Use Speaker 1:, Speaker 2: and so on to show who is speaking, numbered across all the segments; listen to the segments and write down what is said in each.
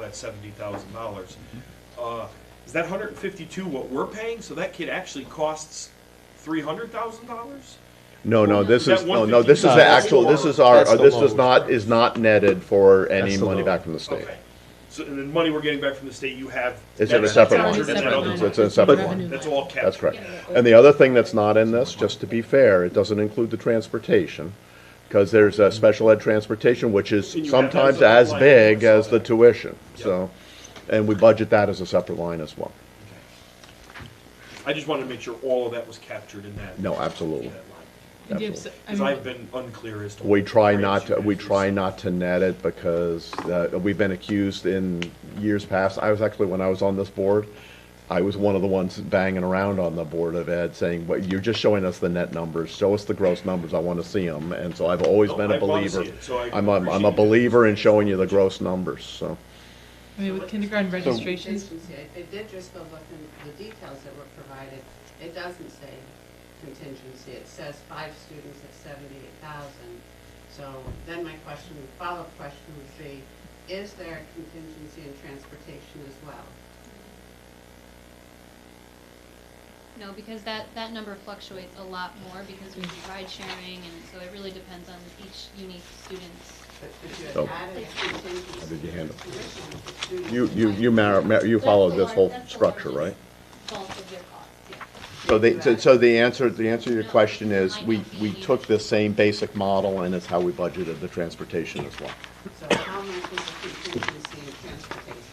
Speaker 1: that seventy thousand dollars. Uh, is that hundred and fifty-two what we're paying? So that kid actually costs three hundred thousand dollars?
Speaker 2: No, no, this
Speaker 1: That
Speaker 2: is, no, no, this is
Speaker 3: No,
Speaker 2: the
Speaker 3: that's-
Speaker 2: actual, this is our, uh,
Speaker 3: that's the
Speaker 2: this is
Speaker 3: lowest.
Speaker 2: not, is not netted for any
Speaker 3: That's the
Speaker 2: money
Speaker 3: lowest.
Speaker 2: back from the state.
Speaker 1: Okay. So, and the money we're getting back from the state, you have.
Speaker 2: It's in a
Speaker 1: that's
Speaker 2: separate
Speaker 1: captured in
Speaker 2: one.
Speaker 1: that
Speaker 4: Separate
Speaker 1: other
Speaker 4: line.
Speaker 2: It's in a separate
Speaker 3: But-
Speaker 2: one.
Speaker 1: That's all kept.
Speaker 2: That's correct. And the other thing that's not in this, just to be fair, it doesn't include the transportation, because there's a special ed transportation, which is
Speaker 1: And you have that
Speaker 2: sometimes
Speaker 1: as a
Speaker 2: as
Speaker 1: line
Speaker 2: big
Speaker 1: item, I
Speaker 2: as
Speaker 1: saw
Speaker 2: the
Speaker 1: that.
Speaker 2: tuition, so, and we budget that as a separate line as well.
Speaker 1: I just wanted to make sure all of that was captured in that.
Speaker 2: No,
Speaker 1: that
Speaker 2: absolutely.
Speaker 1: line.
Speaker 4: And do you have s- I
Speaker 1: Cause
Speaker 4: mean,
Speaker 1: I've been unclear as to.
Speaker 2: We
Speaker 1: what
Speaker 2: try
Speaker 1: rates
Speaker 2: not,
Speaker 1: you
Speaker 2: to we
Speaker 1: actually
Speaker 2: try not to net it because uh, we've been accused in years past. I was actually, when I was on this board, I was one of the ones banging around on the Board of Ed saying, well, you're just showing us the net numbers, show us the gross numbers, I want to see them. And so I've always
Speaker 1: No,
Speaker 2: been a
Speaker 1: Oh, I wanna see
Speaker 2: believer.
Speaker 1: it, so I
Speaker 2: I'm, a- I'm a
Speaker 1: appreciate you.
Speaker 2: believer in showing you the gross numbers, so.
Speaker 4: I mean, with kindergarten registrations,
Speaker 5: Registrations, yeah, if they did just go look in the details that were provided, it doesn't say contingency, it says five students at seventy-eight thousand. So then my question, follow-up question would be, is there contingency in transportation as well?
Speaker 6: No, because that, that number fluctuates a lot more because we do ride sharing and so it really depends on each unique student's.
Speaker 5: But could you
Speaker 2: So-
Speaker 5: have added contingency?
Speaker 2: Oh. I did your hand up.
Speaker 5: to tuition if the students-
Speaker 2: You, you, you mar- mar- you followed this whole structure, right?
Speaker 6: Bulk of your cost, yeah.
Speaker 2: So they, so- so the answer, the answer to your
Speaker 6: No,
Speaker 2: question is,
Speaker 6: might
Speaker 2: we,
Speaker 6: not be
Speaker 2: we
Speaker 6: needed.
Speaker 2: took this same basic model and it's how we budgeted the transportation as well.
Speaker 5: So how much is the contingency in transportation?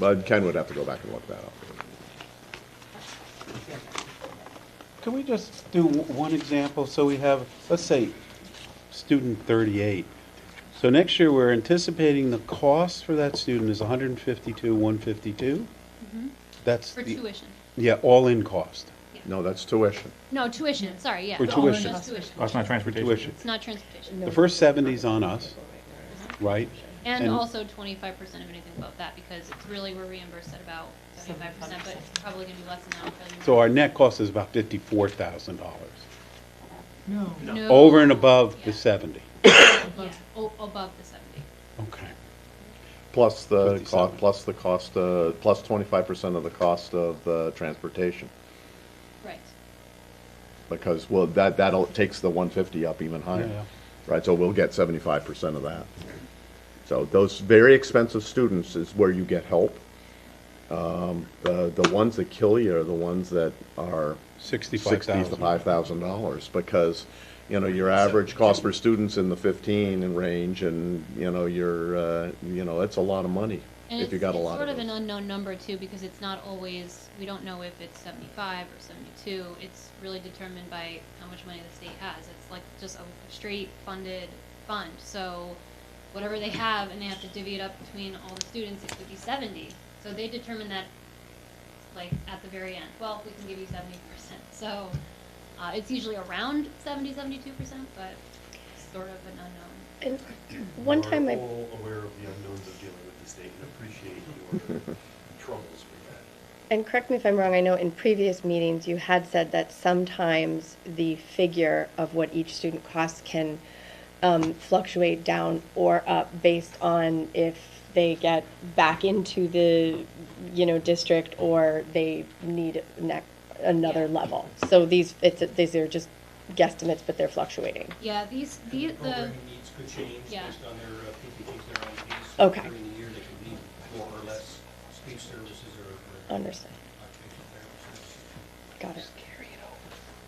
Speaker 2: But Ken would have to go back and look that up.
Speaker 3: Can we just do w- one example? So we have, let's say, student 38. So next year, we're anticipating the cost for that student is 152, 152? That's
Speaker 6: Mm-hmm. For
Speaker 3: the,
Speaker 6: tuition.
Speaker 3: yeah, all-in cost,
Speaker 2: No, that's tuition.
Speaker 6: No, tuition, sorry, yeah.
Speaker 3: For
Speaker 6: No,
Speaker 3: tuition.
Speaker 6: Just tuition.
Speaker 7: Oh, it's not transportation.
Speaker 3: tuition.
Speaker 6: It's not transportation.
Speaker 3: The first 70's on us,
Speaker 6: Mm-hmm.
Speaker 3: right?
Speaker 6: And
Speaker 3: And-
Speaker 6: also twenty-five percent of anything above that because it's really, we're reimbursed at about seventy-five percent, but it's probably gonna be less than that. probably
Speaker 3: So
Speaker 6: more.
Speaker 3: our net cost is about $54,000,
Speaker 4: no.
Speaker 6: No,
Speaker 3: over and above the 70.
Speaker 6: Yeah, o- above the seventy.
Speaker 3: Okay.
Speaker 2: Plus the, co-
Speaker 3: 57.
Speaker 2: plus the cost, uh, plus twenty-five percent of the cost of the transportation.
Speaker 6: Right.
Speaker 2: Because, well, that, that'll, takes the one fifty up even
Speaker 3: Yeah.
Speaker 2: higher. Right, so we'll get seventy-five percent of that. So those very expensive students is where you get help. Um, the, the ones that kill you are the ones that are
Speaker 3: 65,000.
Speaker 2: sixty-five thousand dollars, because, you know, your average cost per student's in the fifteen and range, and, you know, you're, uh, you know, it's a lot of money,
Speaker 6: And
Speaker 2: if you
Speaker 6: it's-
Speaker 2: got a
Speaker 6: it's
Speaker 2: lot
Speaker 6: Sort
Speaker 2: of
Speaker 6: of an
Speaker 2: those.
Speaker 6: unknown number too, because it's not always, we don't know if it's seventy-five or seventy-two. It's really determined by how much money the state has. It's like just a straight funded fund, so whatever they have and they have to divvy it up between all the students, it could be seventy. So they determine that like at the very end, well, we can give you seventy percent. So, uh, it's usually around seventy, seventy-two percent, but it's sort of an unknown.
Speaker 8: And one time I,
Speaker 1: We're all aware of the unknowns of dealing with the state and appreciate your troubles with that.
Speaker 8: and correct me if I'm wrong, I know in previous meetings, you had said that sometimes the figure of what each student costs can um, fluctuate down or up based on if they get back into the, you know, district or they need ne- another level. So these, it's, these are just guesstimates, but they're fluctuating.
Speaker 6: Yeah, these, the,
Speaker 9: The
Speaker 6: the,
Speaker 9: programming needs could change
Speaker 6: Yeah.
Speaker 9: based on their uh, PPGs, their IEPs.
Speaker 8: Okay.
Speaker 9: During the year, they could need more or less speech services or or
Speaker 8: Understood.
Speaker 9: occupational therapy services.
Speaker 8: Got it.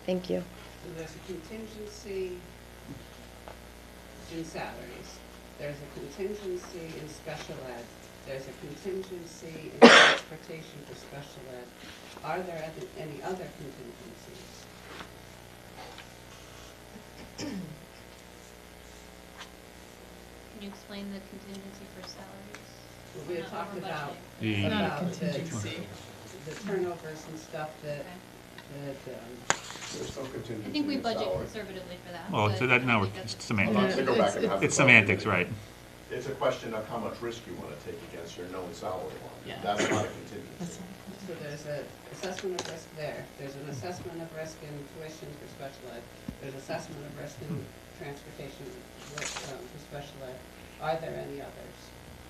Speaker 8: Thank you.
Speaker 5: So there's a contingency in salaries, there's a contingency in special ed, there's a contingency in transportation for special ed. Are there other- any other contingencies?
Speaker 6: Can you explain the contingency for salaries?
Speaker 5: We had
Speaker 6: Not
Speaker 5: talked
Speaker 6: over
Speaker 5: about,
Speaker 7: budgeting. Yeah.
Speaker 5: about the, the turnovers and stuff that, that, um,
Speaker 6: I think we budget conservatively for that.
Speaker 7: Well,
Speaker 6: but
Speaker 7: so that,
Speaker 6: I
Speaker 7: now
Speaker 6: think
Speaker 7: it's
Speaker 6: that's-
Speaker 7: semantics.
Speaker 4: Yeah. It's-
Speaker 2: have
Speaker 7: It's
Speaker 2: the budget.
Speaker 7: semantics, right.
Speaker 2: It's a question of how much risk you want to take against your known salary line.
Speaker 4: Yeah.
Speaker 2: That's not a contingency.
Speaker 5: so there's a assessment of risk there. There's an assessment of risk in tuition for special ed. There's assessment of risk in transportation with, um, for special ed. Are there any others?